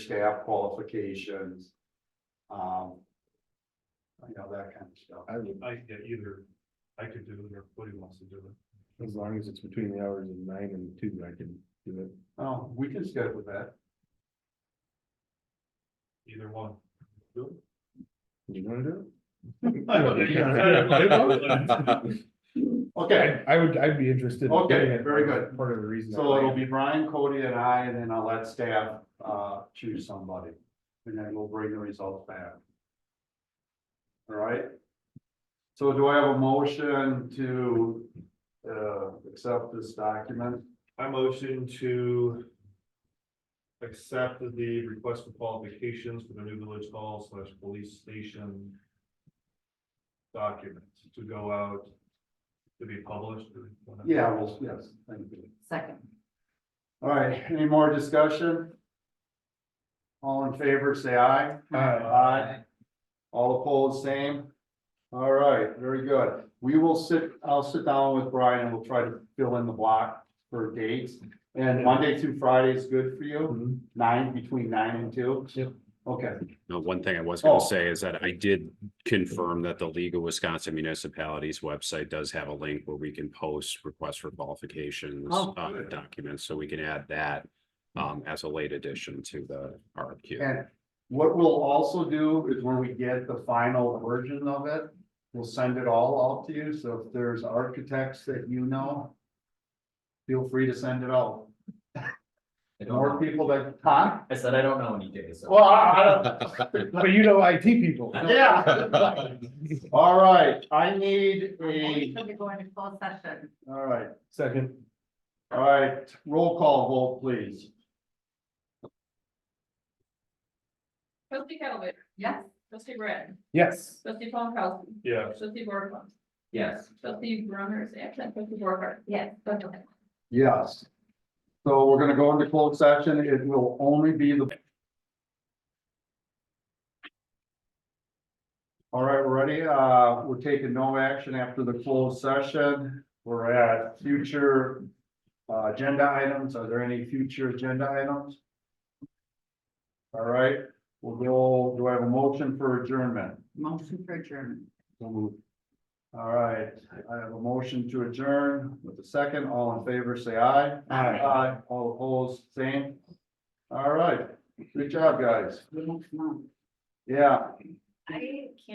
staff qualifications. Um. You know, that kind of stuff. I would, I, yeah, either, I could do it or Woody wants to do it. as long as it's between the hours of nine and two, I can do it. Oh, we can schedule that. Either one. You wanna do I it? Okay, I would, I'd be interested. in Okay, doing it. very good. Part of the reason. so it'll be Brian, Cody and I, and then I'll let staff uh choose somebody. And then we'll bring the results back. All right. So do I have a motion to uh accept this document? I motion to. Accept the request for qualifications for the new village hall slash police station. Document to go out. To be published. Yeah, well, yes, thank you. Second. All right, any more discussion? All in favor, say aye. Aye. All opposed, same? All right, very good. We will sit, I'll sit down with Brian and we'll try to fill in the block for dates. And Monday through Friday is good for you, Mhm. nine, between nine and two? Yep. Okay, No, one thing I was gonna Oh. say is that I did confirm that the League of Wisconsin Municipalities website does have a link where we can post requests for qualifications. Oh, uh, Documents, so we can add that um as a late addition to the RFQ. and what we'll also do is when we get the final version of it, we'll send it all out to you. So if there's architects that you know, feel free to send it out. I don't More know. people that, huh? I said I don't know any days. so- Well, I, But you know IT people. I don't, yeah. All right, I need a, Motion to go into closed session. all right, Second, all right, roll call vote, please. Trustee Calvin, Yes? trustee Brad, yes. trustee Paul Calvin, Yeah, trustee Borfund, Yes. trustee Brunner is absent, trustee Borfund. Yes. Okay. Yes. So we're gonna go into closed session. It will only be the. All right, we're ready. Uh, we're taking no action after the closed session. We're at future. Uh, agenda items. Are there any future agenda items? All right, we'll go, do I have a motion for adjournment? Motion for adjournment. All right, I have a motion to adjourn with a second. All in favor, say aye. Aye. Aye, all opposed, same. All right, good job, guys. The next month. Yeah. I can't.